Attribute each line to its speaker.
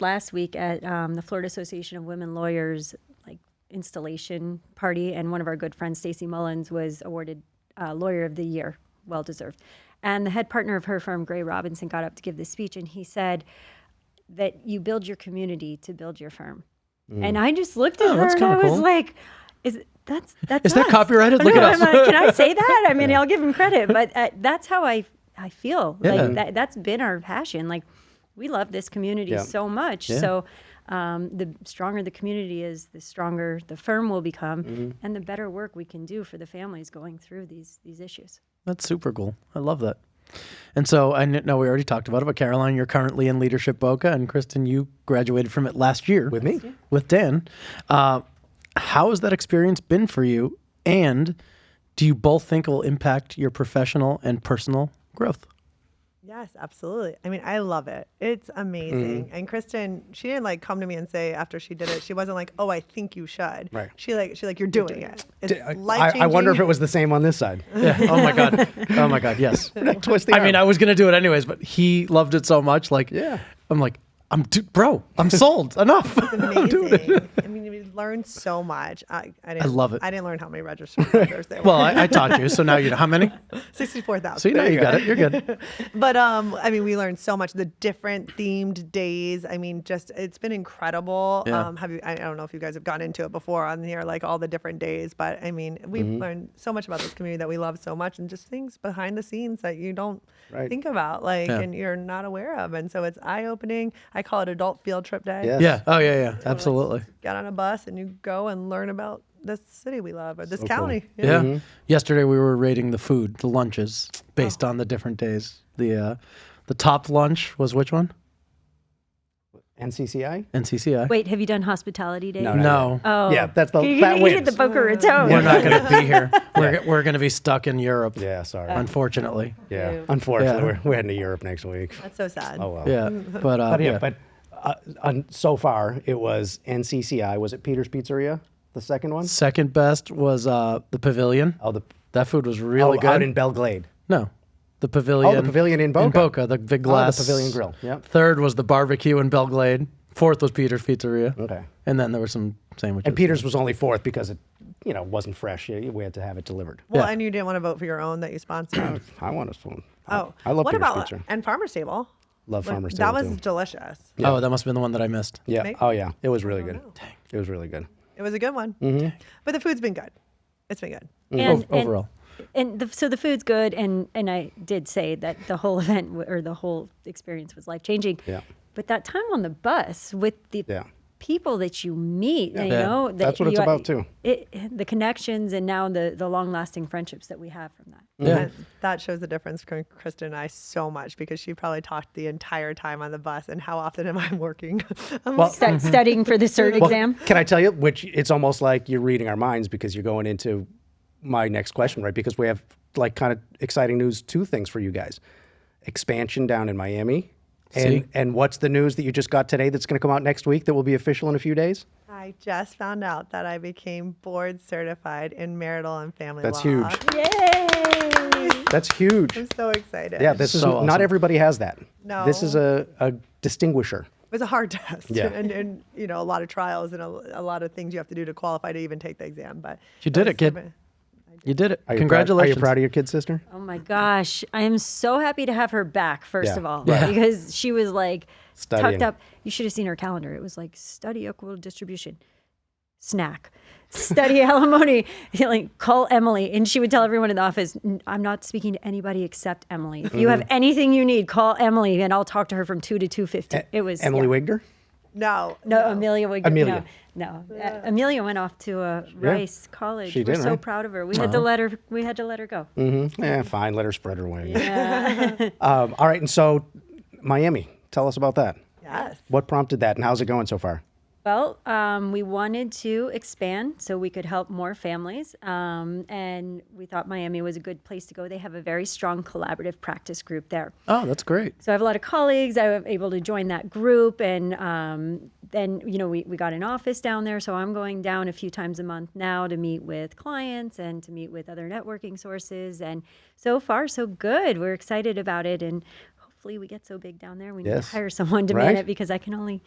Speaker 1: last week at um, the Florida Association of Women Lawyers like installation party, and one of our good friends, Stacey Mullins, was awarded uh, Lawyer of the Year, well deserved. And the head partner of her firm, Gray Robinson, got up to give this speech, and he said that you build your community to build your firm. And I just looked at
Speaker 2: Oh,
Speaker 1: her
Speaker 2: that's
Speaker 1: and I
Speaker 2: kinda
Speaker 1: was
Speaker 2: cool.
Speaker 1: like, "Is that's that's
Speaker 2: Is that
Speaker 1: us."
Speaker 2: copyrighted?
Speaker 1: I
Speaker 2: Look it
Speaker 1: know,
Speaker 2: up.
Speaker 1: I'm like, Can I say that? I mean, I'll give him credit, but uh, that's how I I feel.
Speaker 2: Yeah.
Speaker 1: Like that that's been our passion. Like we love this community
Speaker 2: Yeah.
Speaker 1: so much.
Speaker 2: Yeah.
Speaker 1: So um, the stronger the community is, the stronger the firm will become,
Speaker 3: Mm-hmm.
Speaker 1: and the better work we can do for the families going through these these issues.
Speaker 2: That's super cool. I love that. And so I kn- know we already talked about it, but Caroline, you're currently in leadership Boca, and Kristen, you graduated from it last year
Speaker 3: with me.
Speaker 2: with Dan. Uh, how has that experience been for you? And do you both think it will impact your professional and personal growth?
Speaker 4: Yes, absolutely. I mean, I love it. It's amazing. And Kristen, she didn't like come to me and say after she did it, she wasn't like, "Oh, I think you should."
Speaker 3: Right.
Speaker 4: She like she like you're doing it. It's
Speaker 3: I,
Speaker 4: life
Speaker 3: I wonder if it was the same on this side.
Speaker 2: Yeah. Oh my god. Oh my god. Yes.
Speaker 3: Twist the
Speaker 2: I mean, I
Speaker 3: arm.
Speaker 2: was gonna do it anyways, but he loved it so much. Like,
Speaker 3: Yeah.
Speaker 2: I'm like, I'm d- bro. I'm sold. Enough. I'm doing it.
Speaker 4: amazing. I mean, we learned so much. I, I didn't
Speaker 2: love it.
Speaker 4: I didn't learn how many registered members there
Speaker 2: Well,
Speaker 4: were.
Speaker 2: I, I taught you, so now you know how many.
Speaker 4: Sixty-four thousand.
Speaker 2: So you know you got it. You're good.
Speaker 4: but um i mean we learned so much the different themed days i mean just it's been incredible
Speaker 2: Yeah.
Speaker 4: um have you i don't know if you guys have gone into it before on here like all the different days but i mean we've
Speaker 2: Mm-hmm.
Speaker 4: learned so much about this community that we love so much and just things behind the scenes that you don't
Speaker 3: Right.
Speaker 4: think about like
Speaker 2: Yeah.
Speaker 4: and you're not aware of and so it's eye-opening i call it adult field trip day
Speaker 3: Yes.
Speaker 2: Yeah. Oh yeah. Yeah. Absolutely.
Speaker 4: get on a bus and you go and learn about this city we love or this
Speaker 3: cool.
Speaker 4: county you
Speaker 2: Yeah.
Speaker 3: Mm-hmm.
Speaker 2: Yesterday we were rating the food, the lunches, based
Speaker 3: Oh.
Speaker 2: on the different days. The uh, the top lunch was which one?
Speaker 3: NCCI.
Speaker 2: NCCI.
Speaker 1: Wait, have you done hospitality day?
Speaker 3: No, not
Speaker 2: no,
Speaker 1: Oh,
Speaker 3: Yeah, that's the
Speaker 1: you
Speaker 3: that
Speaker 1: you did
Speaker 3: wins.
Speaker 1: the Boca Raton.
Speaker 2: we're not going to be here. We're g- we're going to be stuck in Europe,
Speaker 3: yeah, sorry.
Speaker 4: Uh,
Speaker 2: unfortunately.
Speaker 3: yeah, unfortunately,
Speaker 2: Yeah.
Speaker 3: We're, we're heading to Europe next week.
Speaker 4: that's so sad
Speaker 3: Oh well.
Speaker 2: Yeah. But uh,
Speaker 3: But yeah,
Speaker 2: yeah.
Speaker 3: but uh, on, so far it was NCCI. Was it Peter's Pizzeria? The second one?
Speaker 2: second best was uh, the Pavilion.
Speaker 3: Oh, the
Speaker 2: That food was
Speaker 3: oh,
Speaker 2: really good.
Speaker 3: out in Belglade.
Speaker 2: No. The pavilion.
Speaker 3: pavilion in Boca. Oh,
Speaker 2: the big glass.
Speaker 3: pavilion grill, yep.
Speaker 2: Third was the barbecue in Belglade. Fourth was Peter's Pizzeria.
Speaker 3: Okay.
Speaker 2: And then there were some sandwiches.
Speaker 3: And Peter's was only fourth because it, you know, wasn't fresh. You- We had to have it delivered.
Speaker 4: well
Speaker 2: Yeah.
Speaker 4: and you didn't want to vote for your own that you sponsored
Speaker 3: I want a spoon.
Speaker 4: oh
Speaker 3: I love
Speaker 4: what
Speaker 3: Peter's
Speaker 4: about
Speaker 3: Pizza.
Speaker 4: and farmer's table
Speaker 3: Love
Speaker 4: Like,
Speaker 3: Farmer's
Speaker 4: That
Speaker 3: Table,
Speaker 4: was
Speaker 3: too.
Speaker 4: delicious.
Speaker 2: Oh, that must have been the one that I missed.
Speaker 3: Yeah.
Speaker 4: Maybe.
Speaker 3: Oh yeah. It was really good.
Speaker 4: know.
Speaker 3: It was really good.
Speaker 4: It was a good one.
Speaker 3: Mm-hmm.
Speaker 4: But the food's been good. It's been good.
Speaker 1: And,
Speaker 2: Ov-
Speaker 1: and,
Speaker 2: overall.
Speaker 1: and the, so the food's good, and and I did say that the whole event w- or the whole experience was life changing.
Speaker 3: Yeah.
Speaker 1: But that time on the bus with the
Speaker 3: Yeah.
Speaker 1: people that you meet, you
Speaker 2: Yeah.
Speaker 1: know, that
Speaker 3: That's what it's
Speaker 1: you-
Speaker 3: about, too.
Speaker 1: It, the connections and now the the long lasting friendships that we have from that.
Speaker 3: Mm-hmm.
Speaker 2: Yeah.
Speaker 4: And that shows the difference between Kristen and I so much because she probably talked the entire time on the bus and how often am I working? I'm like,
Speaker 1: Stu- studying for the cert exam.
Speaker 3: Can I tell you? Which it's almost like you're reading our minds because you're going into my next question, right? Because we have like kind of exciting news, two things for you guys: expansion down in Miami,
Speaker 2: See?
Speaker 3: and and what's the news that you just got today that's going to come out next week that will be official in a few days?
Speaker 4: I just found out that I became board certified in marital and family
Speaker 3: That's
Speaker 4: law.
Speaker 3: huge.
Speaker 1: Yay!
Speaker 3: That's huge.
Speaker 4: I'm so excited.
Speaker 3: Yeah, this is
Speaker 2: So
Speaker 3: not
Speaker 2: awesome.
Speaker 3: everybody has that. This is
Speaker 4: No.
Speaker 3: a, a distinguisher.
Speaker 4: It was a hard test.
Speaker 3: Yeah.
Speaker 4: And, and you know, a lot of trials and a, a lot of things you have to do to qualify to even take the exam. But
Speaker 2: You did
Speaker 4: was
Speaker 2: it, kid.
Speaker 4: super-
Speaker 2: You did it.
Speaker 3: Are you proud-
Speaker 2: Congratulations.
Speaker 3: are you proud of your kid sister?
Speaker 1: Oh my gosh. I am so happy to have her back, first
Speaker 3: Yeah.
Speaker 1: of all,
Speaker 2: Yeah.
Speaker 1: because she was like
Speaker 3: Studying.
Speaker 1: tucked up. You should have seen her calendar. It was like study equal distribution, snack, study alimony, like call Emily. And she would tell everyone in the office, "N- I'm not speaking to anybody except Emily. If you have
Speaker 3: Mm-hmm.
Speaker 1: anything you need, call Emily and I'll talk to her from 2 to 2.50. It was
Speaker 3: E, Emily
Speaker 1: yeah.
Speaker 3: Wigner.
Speaker 4: No.
Speaker 1: No, Amelia would.
Speaker 3: Amelia.
Speaker 1: No, no. Uh, Amelia went off to uh, Rice College.
Speaker 3: She
Speaker 1: We're
Speaker 3: did,
Speaker 1: so
Speaker 3: right? Uh-huh.
Speaker 1: proud of her. We had to let her. We had to let her go.
Speaker 3: Yeah, Mm-hmm. Eh, fine. Let her spread her wings. um, all right, and so Miami. Tell us about that.
Speaker 4: Yes.
Speaker 3: What prompted that, and how's it going so far?
Speaker 1: Well, um, we wanted to expand so we could help more families, um, and we thought Miami was a good place to go. They have a very strong collaborative practice group there.
Speaker 2: Oh, that's great.
Speaker 1: So I have a lot of colleagues. I was able to join that group, and um, then you know we, we got an office down there. So I'm going down a few times a month now to meet with clients and to meet with other networking sources. And so far, so good. We're excited about it, and hopefully we get so big down there we need
Speaker 3: Yes.
Speaker 1: to hire someone to man
Speaker 3: Right.
Speaker 1: it because I can only